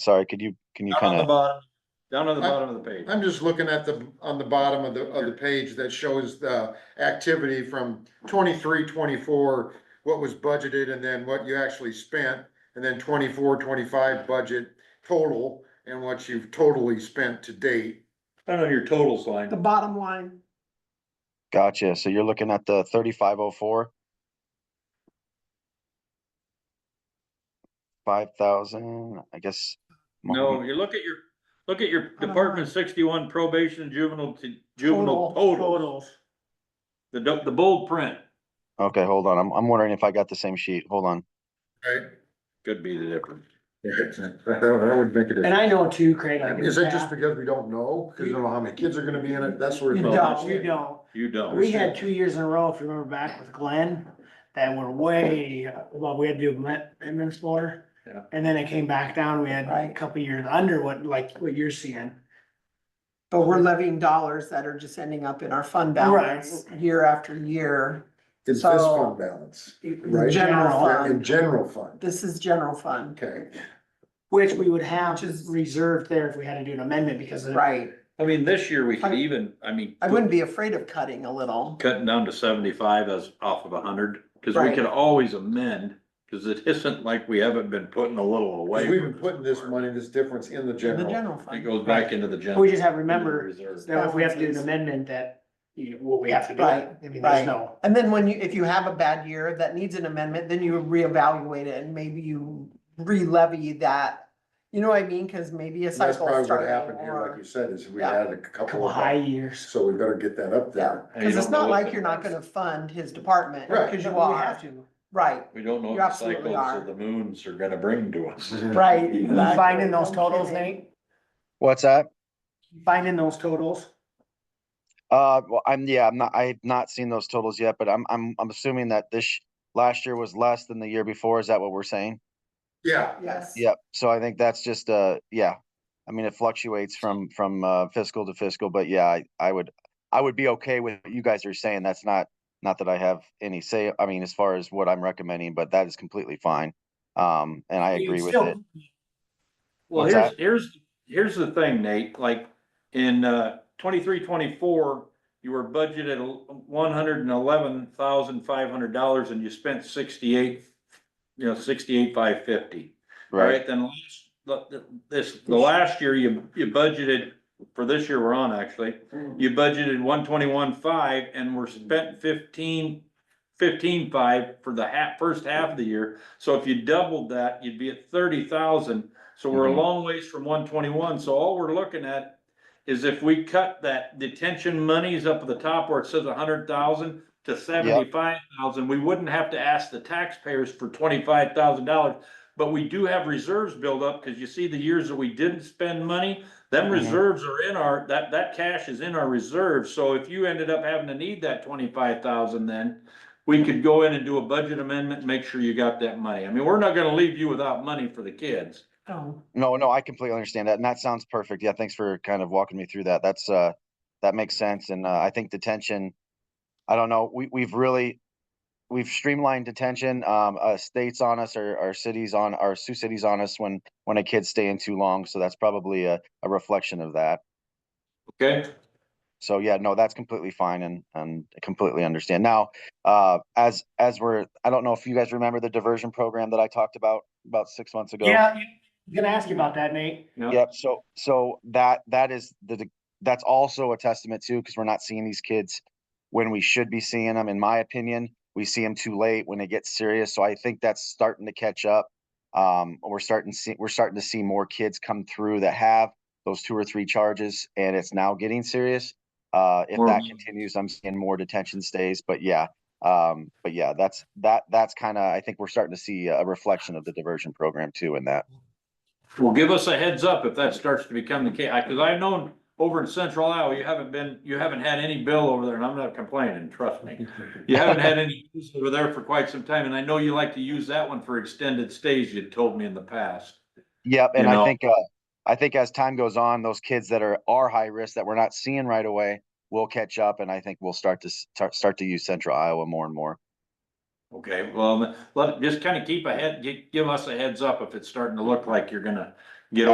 Sorry, could you, can you Down on kind the of, bottom, down on the I- bottom of the page. I'm just looking at the, on the bottom of the, of the page that shows the activity from 23, 24, what was budgeted and then what you actually spent, and then 24, 25 budget total, and what you've totally spent to date. Not on your totals The line. bottom line, gotcha, so you're looking at the thirty-five oh four? Five thousand, I guess. mo- No, you look at your, look at your don't Department know. sixty-one probation and juvenile to total, juvenile total, totals. the, du- the bold print. Okay, hold on, I'm, I'm wondering if I got the same sheet, hold on. Right. Could be the difference. That would make a And I know too, Craig, I Is get that just that. because we don't know? Cause you don't know how many kids are gonna be in it? That's where. You it's don't, you don't. You don't. We had two years in a row, if you remember back with Glenn, that were way, uh, well, we had to do admin- admin floor. Yeah. And then it came back down, we had a couple years under what, like, what you're seeing. But we're levying dollars that are just ending up in our fund balance year after year. It's this So- fund balance, Right. General in fund, general fund, this is general fund, okay. Which we would have Which is- reserved there if we had to do an amendment because of. right? I mean, this year we could I- even, I mean. I wouldn't be afraid of cutting a little. Cutting down to seventy-five as off of a hundred, cause we Right. could always amend, cause it isn't like we haven't been putting a little away. Cause we've been from putting this before. money, this difference in the in The general. general It fund, goes back into the general. We just have to remember reserve. that if we have to do an amendment that, you know, what we have to do. Right, I mean, right. there's no. and then when you, if you have a bad year that needs an amendment, then you reevaluate it and maybe you re-levy that. You know what I mean? Cause maybe a And That's cycle probably what started happened here, like or. you said, is we Yeah. had a Couple couple of high of, years. so we better get that up Yeah, there. And you cause it's don't know not if like it- you're not gonna fund his department, Right. cause you We have are, to. right, We don't know You what the absolutely cycles are. of the moons are gonna bring to us. right. exactly. Finding those No totals, kidding. Nate, What's that? finding those totals. Uh, well, I'm, yeah, I'm not, I've not seen those totals yet, but I'm, I'm, I'm assuming that this, sh- last year was less than the year before, is that what we're saying? Yeah, Yes. Yep, so I think that's just, uh, yeah. I mean, it fluctuates from, from, uh, fiscal to fiscal, but yeah, I, I would, I would be okay with what you guys are saying, that's not, not that I have any say, I mean, as far as what I'm recommending, but that is completely fine. Um, and I agree with it. Well, What's here's, here's, here's the thing, Nate, like, in, uh, twenty-three, twenty-four, you were budgeted one hundred and eleven thousand five hundred dollars and you spent sixty-eight, you know, sixty-eight, five fifty. Right, Right, then last, the- the- this, the last year you, you budgeted, for this year we're on actually, you budgeted one twenty-one five and we're spent fifteen, fifteen five for the half, first half of the year. So if you doubled that, you'd be at thirty thousand, so we're a Mhm. long ways from one twenty-one, so all we're looking at is if we cut that detention monies up at the top where it says a hundred thousand to seventy-five thousand, we wouldn't have to ask the taxpayers for twenty-five thousand dollars. But we do have reserves build up, cause you see the years that we didn't spend money, them Mhm. reserves are in our, that, that cash is in our reserves, so if you ended up having to need that twenty-five thousand then. We could go in and do a budget amendment, make sure you got that money, I mean, we're not gonna leave you without money for the kids. Oh, no, no, I completely understand that, and that sounds perfect, yeah, thanks for kind of walking me through that, that's, uh, that makes sense, and, uh, I think detention, I don't know, we, we've really, we've streamlined detention. Um, uh, states on us or our cities on our Sioux cities on us when when a kid's staying too long. So that's probably a, a reflection of that. Okay. So yeah, no, that's completely fine and and I completely understand. Now, uh, as as we're, I don't know if you guys remember the diversion program that I talked about about six months ago. Yeah, yeah, I'm gonna ask you about that, Nate. Yep. So, so that, that is the, the- that's also a testament too, because we're not seeing these kids when we should be seeing them, in my opinion. We see them too late when it gets serious. So I think that's starting to catch up. Um, we're starting to see, we're starting to see more kids come through that have those two or three charges and it's now getting serious. Uh, if More that awareness. continues, I'm seeing more detention stays, but yeah. Um, but yeah, that's, that, that's kind of, I think we're starting to see a reflection of the diversion program too in that. Well, give us a heads up if that starts to become the case, because I've known over in Central Iowa, you haven't been, you haven't had any bill over there, and I'm not complaining, trust me. You haven't had any bills over there for quite some time, and I know you like to use that one for extended stays, you told me in the past. Yep, you and I know? think, uh, I think as time goes on, those kids that are, are high risk that we're not seeing right away will catch up and I think we'll start to s- tar- start to use central Iowa more and more. Okay, well, let, just kind of keep ahead, gi- give us a heads up if it's starting to look like you're gonna